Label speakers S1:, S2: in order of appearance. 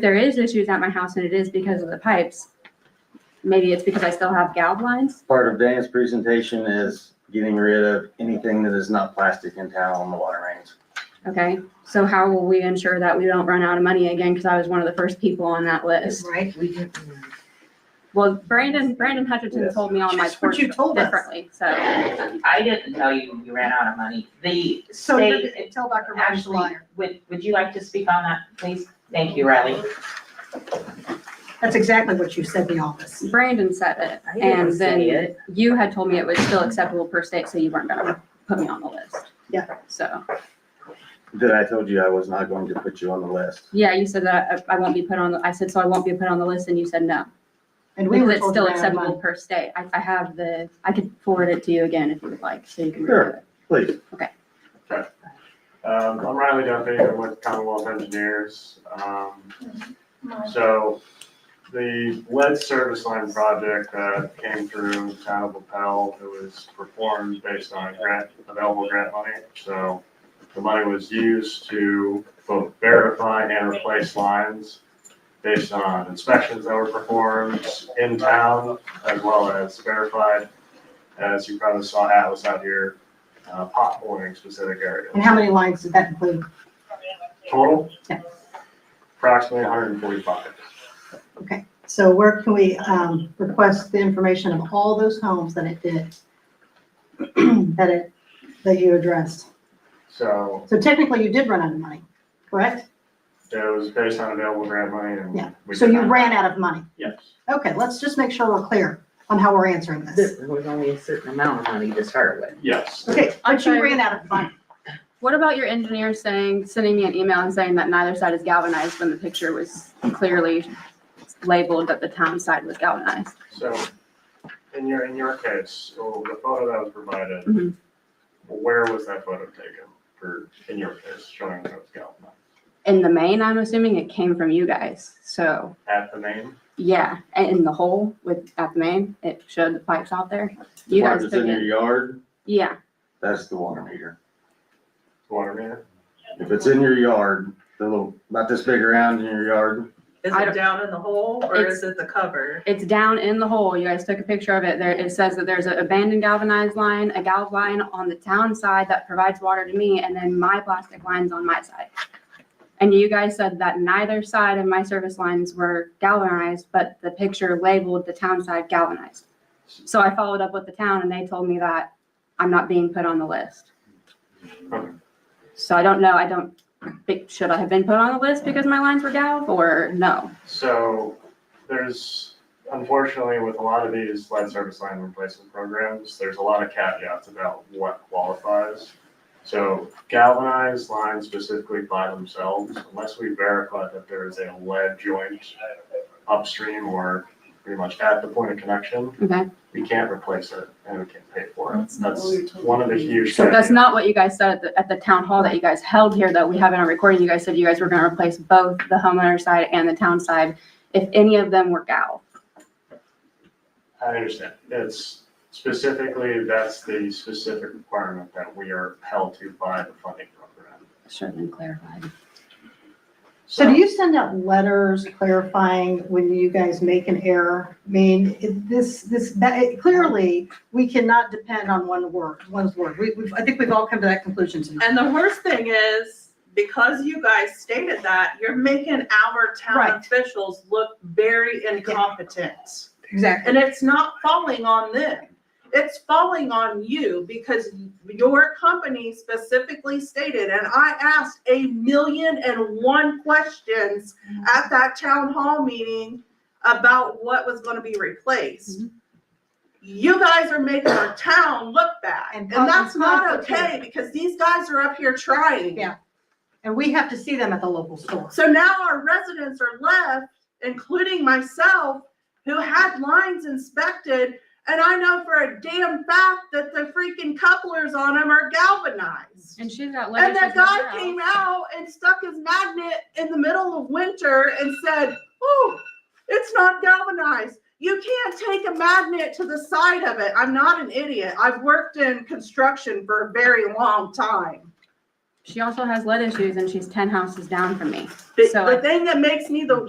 S1: there is issues at my house and it is because of the pipes, maybe it's because I still have galv lines.
S2: Part of Dan's presentation is getting rid of anything that is not plastic in town on the water mains.
S1: Okay, so how will we ensure that we don't run out of money again? Because I was one of the first people on that list.
S3: Right, we didn't.
S1: Well, Brandon, Brandon Hutchinson
S2: Yes.
S1: told me on my
S3: That's what
S1: porch
S3: you told us.
S1: differently, so.
S4: I didn't tell you you ran out of money. The
S3: So
S4: state,
S3: tell Dr. Rogers a
S4: actually,
S3: liar.
S4: would, would you like to speak on that, please? Thank you, Riley.
S3: That's exactly what you said in the office.
S1: Brandon said it,
S3: I didn't
S1: and
S3: say
S1: then
S3: it.
S1: you had told me it was still acceptable per state, so you weren't gonna put me on the list.
S3: Yeah.
S1: So,
S2: That I told you I was not going to put you on the list.
S1: yeah, you said that I I won't be put on, the. I said, so I won't be put on the list, and you said no.
S3: And we
S1: Because
S3: were
S1: it's
S3: told
S1: still
S3: to add
S1: acceptable
S3: money.
S1: per state. I, I have the, I could forward it to you again if you would like, so you can
S2: Sure.
S1: review it.
S2: Please,
S5: Um, I'm Riley Duffy, I'm with Commonwealth Engineers. Um, so the lead service line project that came through town of LaPel, it was performed based on grant, available grant money. So the money was used to both verify and replace lines based on inspections that were performed in town as well as verified. As you probably saw Atlas out here, uh, potholing specific areas.
S3: And how many lines did that include?
S5: Total?
S3: Yeah.
S5: Approximately hundred and forty-five.
S3: So where can we, um, request the information of all those homes that it did? That it, that you addressed?
S5: So
S3: So technically you did run out of money, correct?
S5: it was based on available grant money and.
S3: Yeah.
S5: we
S3: So
S5: did
S3: you
S5: not-
S3: ran out of money.
S5: Yes.
S3: Okay, let's just make sure we're clear on how we're answering this.
S6: There was only a certain amount of money to start with.
S5: Yes.
S3: Okay, but you
S1: sorry.
S3: ran out of money.
S1: What about your engineer saying, sending me an email and saying that neither side is galvanized when the picture was clearly labeled that the town side was galvanized?
S5: So in your, in your case, so the photo that was provided,
S3: Mm-hmm.
S1: Mhm.
S5: where was that photo taken for, in your case, showing that it's galvanized?
S1: In the main, I'm assuming it came from you guys, so,
S5: At the name?
S1: yeah, and in the hole with, at the main, it showed the pipes out there.
S2: the
S1: You
S2: part
S1: guys
S2: that's
S1: took
S2: in your
S1: it,
S2: yard,
S1: yeah,
S2: that's the water meter.
S5: Water meter?
S2: If it's in your yard, the little, about this big around in your yard,
S7: Is
S1: I
S7: it
S1: don't-
S7: down in the hole or
S1: It's-
S7: is it the cover?
S1: it's down in the hole, you guys took a picture of it, there, it says that there's an abandoned galvanized line, a galv line on the town side that provides water to me, and then my plastic lines on my side. And you guys said that neither side of my service lines were galvanized, but the picture labeled the town side galvanized. So I followed up with the town and they told me that I'm not being put on the list.
S5: Okay.
S1: So I don't know, I don't, think- should I have been put on the list because my lines were galv or no?
S5: So there's, unfortunately, with a lot of these lead service line replacement programs, there's a lot of caveats about what qualifies. So galvanized lines specifically by themselves, unless we verify that there is a lead joint upstream or pretty much at the point of connection,
S1: Okay,
S5: we can't replace it and we can't pay for it.
S7: That's not what we were
S5: That's
S7: told.
S5: one of the huge.
S1: so that's
S5: caveats.
S1: not what you guys said at the, at the town hall that you guys held here that we have in our recording. You guys said you guys were gonna replace both the homeowner side and the town side if any of them were galv.
S5: I understand. It's specifically, that's the specific requirement that we are held to by the funding program.
S1: Should have been clarified.
S3: So do you send out letters clarifying when you guys make an error? I mean, it- this, this, that, it- clearly, we cannot depend on one word, one's word. We, we, I think we've all come to that conclusion tonight.
S7: And the worst thing is, because you guys stated that, you're making our
S3: Right.
S7: town officials look very incompetent.
S3: Exactly.
S7: And it's not falling on them. It's falling on you because your company specifically stated, and I asked a million and one questions at that town hall meeting about what was gonna be replaced. You guys are making our town look bad,
S3: And
S7: and that's
S3: causing
S7: not
S3: conflict.
S7: okay because these guys are up here trying.
S3: Yeah. And we have to see them at the local store.
S7: So now our residents are left, including myself, who had lines inspected, and I know for a damn fact that the freaking couplers on them are galvanized.
S1: And she's got
S7: And that guy came out and stuck his magnet in the middle of winter and said, "Oh, it's not galvanized. You can't take a magnet to the side of it." I'm not an idiot. I've worked in construction for a very long time.
S1: She also has lead issues and she's ten houses down from me.
S7: The,
S1: So I Mm-hmm.
S7: the thing that makes me the